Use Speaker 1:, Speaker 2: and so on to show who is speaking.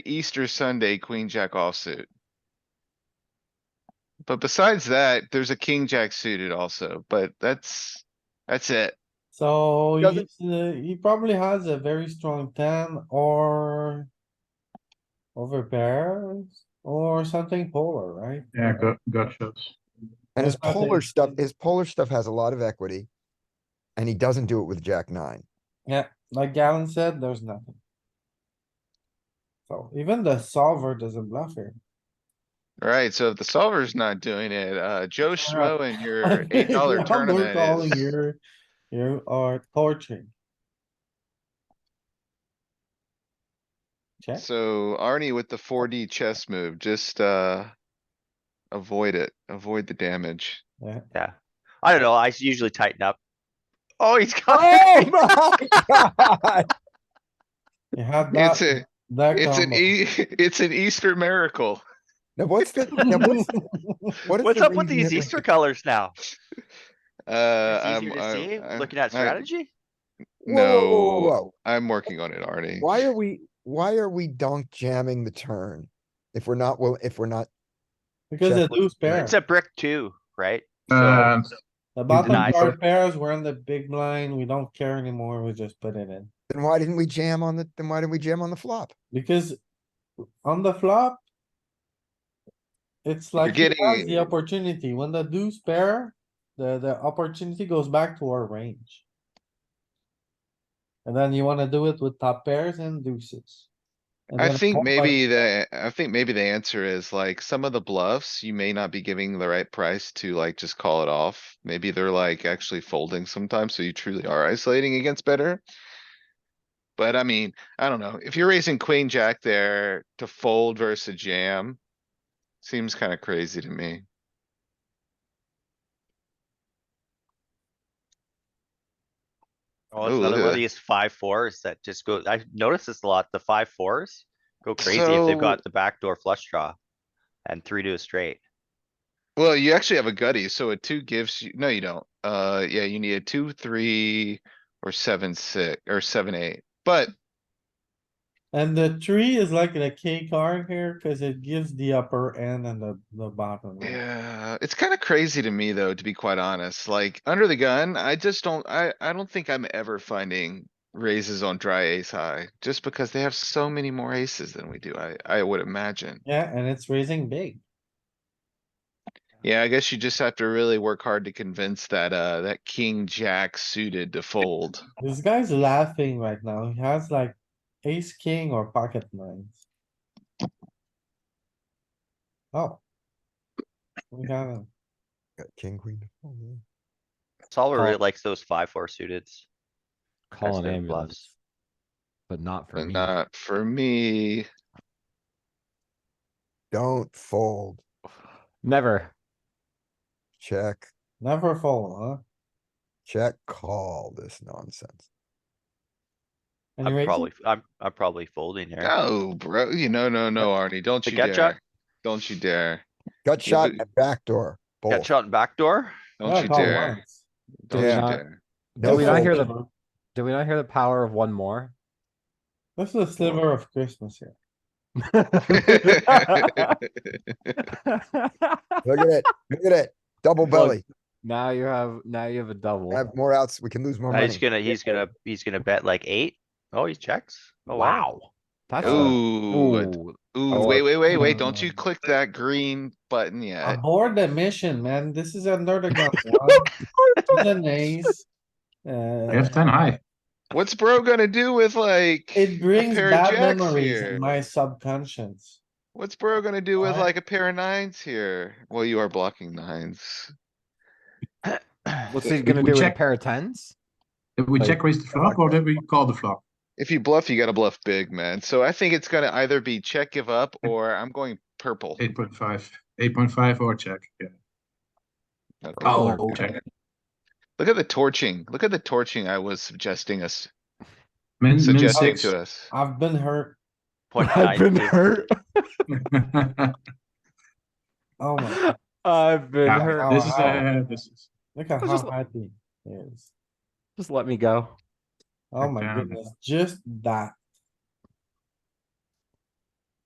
Speaker 1: Easter Sunday, queen jack offsuit. But besides that, there's a king jack suited also, but that's, that's it.
Speaker 2: So
Speaker 3: Doesn't-
Speaker 2: he's, uh, he probably has a very strong ten or over pairs or something polar, right?
Speaker 4: Yeah, gut, gut shots.
Speaker 5: And his
Speaker 2: That's what I
Speaker 5: polar
Speaker 2: think.
Speaker 5: stuff, his polar stuff has a lot of equity. And he doesn't do it with Jack nine.
Speaker 2: Yeah, like Galen said, there's nothing. So even the solver doesn't bluff here.
Speaker 1: Right, so if the solver's not doing it, uh, Joe Schmo and your eight dollar
Speaker 2: Now we're calling
Speaker 1: tournament is.
Speaker 2: your- You are torching. Check,
Speaker 1: So Arnie with the four D chess move, just, uh. Avoid it, avoid the damage.
Speaker 3: Yeah. I don't know. I s- usually tighten up. Oh, he's
Speaker 5: Oh
Speaker 3: coming.
Speaker 5: my god!
Speaker 2: you had that.
Speaker 1: It's a,
Speaker 2: that
Speaker 1: it's an
Speaker 2: combo.
Speaker 1: E, it's an Easter miracle.
Speaker 5: Now what's the, now what's, what is
Speaker 3: What's
Speaker 5: the
Speaker 3: up with
Speaker 5: reason
Speaker 3: these
Speaker 5: that-
Speaker 3: Easter colors now?
Speaker 1: Uh,
Speaker 3: It's
Speaker 1: I'm,
Speaker 3: easier to see,
Speaker 1: I'm,
Speaker 3: looking at
Speaker 1: I-
Speaker 3: strategy.
Speaker 5: Whoa, whoa, whoa, whoa,
Speaker 1: No,
Speaker 5: whoa.
Speaker 1: I'm working on it, Arnie.
Speaker 5: Why are we, why are we donk jamming the turn? If we're not, well, if we're not,
Speaker 2: Because
Speaker 5: Check
Speaker 2: they lose pair.
Speaker 3: It's a brick too, right?
Speaker 4: And
Speaker 2: The bottom
Speaker 3: deny
Speaker 2: card
Speaker 3: for-
Speaker 2: pairs, we're in the big blind, we don't care anymore, we just put it in.
Speaker 5: then why didn't we jam on the, then why didn't we jam on the flop?
Speaker 2: Because on the flop. It's like he has the
Speaker 1: getting-
Speaker 2: opportunity, when the deuce pair, the, the opportunity goes back to our range. And then you wanna do it with top pairs and deuces. And
Speaker 1: I
Speaker 2: then
Speaker 1: think
Speaker 2: all by-
Speaker 1: maybe the, I think maybe the answer is like some of the bluffs, you may not be giving the right price to like just call it off. Maybe they're like actually folding sometimes, so you truly are isolating against better. But I mean, I don't know, if you're raising queen jack there to fold versus jam. Seems kinda crazy to me.
Speaker 3: Oh,
Speaker 1: Ooh,
Speaker 3: it's
Speaker 1: look
Speaker 3: another
Speaker 1: at
Speaker 3: one of
Speaker 1: that.
Speaker 3: these five fours that just go, I noticed this a lot. The five fours go crazy if they've
Speaker 1: So-
Speaker 3: got the backdoor flush draw. And three to a straight.
Speaker 1: Well, you actually have a gutty, so a two gives you, no, you don't. Uh, yeah, you need a two, three, or seven, six, or seven, eight, but
Speaker 2: And the three is like a key card here, cause it gives the upper end and the, the bottom. right?
Speaker 1: Yeah, it's kinda crazy to me though, to be quite honest. Like, under the gun, I just don't, I, I don't think I'm ever finding raises on dry ace high, just because they have so many more aces than we do, I, I would imagine.
Speaker 2: Yeah, and it's raising big.
Speaker 1: Yeah, I guess you just have to really work hard to convince that, uh, that king jack suited to fold.
Speaker 2: This guy's laughing right now. He has like ace, king or pocket nines. Oh. We got him.
Speaker 5: Got King, queen. Oh, yeah.
Speaker 3: Solver really
Speaker 6: Call-
Speaker 3: likes those five, four suiteds.
Speaker 6: call an
Speaker 3: their
Speaker 6: ambulance.
Speaker 3: bluffs.
Speaker 6: But not for
Speaker 1: But
Speaker 6: me.
Speaker 1: not for me.
Speaker 5: Don't fold,
Speaker 6: Never.
Speaker 5: check,
Speaker 2: Never fold, huh?
Speaker 5: check, call this nonsense.
Speaker 2: And he
Speaker 3: I'm
Speaker 2: raises-
Speaker 3: probably, I'm, I'm probably folding here.
Speaker 1: No, bro, you, no, no, no, Arnie, don't
Speaker 3: The
Speaker 1: you
Speaker 3: gut shot?
Speaker 1: dare. Don't you dare.
Speaker 5: Gut
Speaker 1: Yeah,
Speaker 5: shot
Speaker 1: but-
Speaker 5: and backdoor,
Speaker 3: Got
Speaker 5: both.
Speaker 3: shot and backdoor.
Speaker 2: Yeah,
Speaker 1: Don't you
Speaker 2: call
Speaker 1: dare.
Speaker 2: once.
Speaker 1: Don't you
Speaker 5: Yeah.
Speaker 1: dare.
Speaker 5: No
Speaker 6: Did we not hear
Speaker 5: fold.
Speaker 6: the, did we not hear the power of one more?
Speaker 2: This is a sliver of Christmas here.
Speaker 5: Look at it, look at it, double belly,
Speaker 6: Now you have, now you have a double.
Speaker 5: have more outs, we can lose more
Speaker 3: Uh, He's
Speaker 5: money.
Speaker 3: gonna, he's gonna, he's gonna bet like eight. Oh, he checks. Oh, wow.
Speaker 6: Wow. That's a,
Speaker 1: Ooh, a
Speaker 6: ooh,
Speaker 1: Ooh,
Speaker 6: Oh,
Speaker 1: wait,
Speaker 6: uh,
Speaker 1: wait, wait, wait, don't you
Speaker 2: um,
Speaker 1: click that green button yet?
Speaker 6: Uh-huh.
Speaker 2: Aboard the mission, man. This is under the gun. one. An ace. Uh,
Speaker 4: yes, ten high.
Speaker 1: What's bro gonna do with like? a
Speaker 2: it brings
Speaker 1: pair of
Speaker 2: bad
Speaker 1: jacks
Speaker 2: memories
Speaker 1: here?
Speaker 2: in my subconscious.
Speaker 1: What's bro gonna do with
Speaker 2: What?
Speaker 1: like a pair of nines here? Well, you are blocking nines.
Speaker 6: what's he
Speaker 4: We-
Speaker 6: gonna
Speaker 4: we
Speaker 6: do with a
Speaker 4: check-
Speaker 6: pair of tens?
Speaker 4: Did we
Speaker 6: Like-
Speaker 4: check raise the flop or did we call the flop?
Speaker 1: If you bluff, you gotta bluff big, man. So I think it's gonna either be check, give up, or I'm going purple.
Speaker 4: Eight point five, eight point five or check, yeah.
Speaker 1: Okay.
Speaker 6: Oh,
Speaker 4: Oh, check.
Speaker 1: Look at the torching. Look at the torching I was suggesting us,
Speaker 4: Min, min
Speaker 1: suggesting
Speaker 4: six.
Speaker 1: to us.
Speaker 2: I've been hurt.
Speaker 3: Point nine two.
Speaker 6: hurt.
Speaker 2: Oh my, God.
Speaker 6: I've been
Speaker 4: Yeah,
Speaker 6: hurt.
Speaker 4: This is, uh, this is,
Speaker 2: look at
Speaker 6: I was just
Speaker 2: how happy he is.
Speaker 6: Just let me go.
Speaker 2: Oh my
Speaker 4: Goddamn.
Speaker 2: goodness, just that.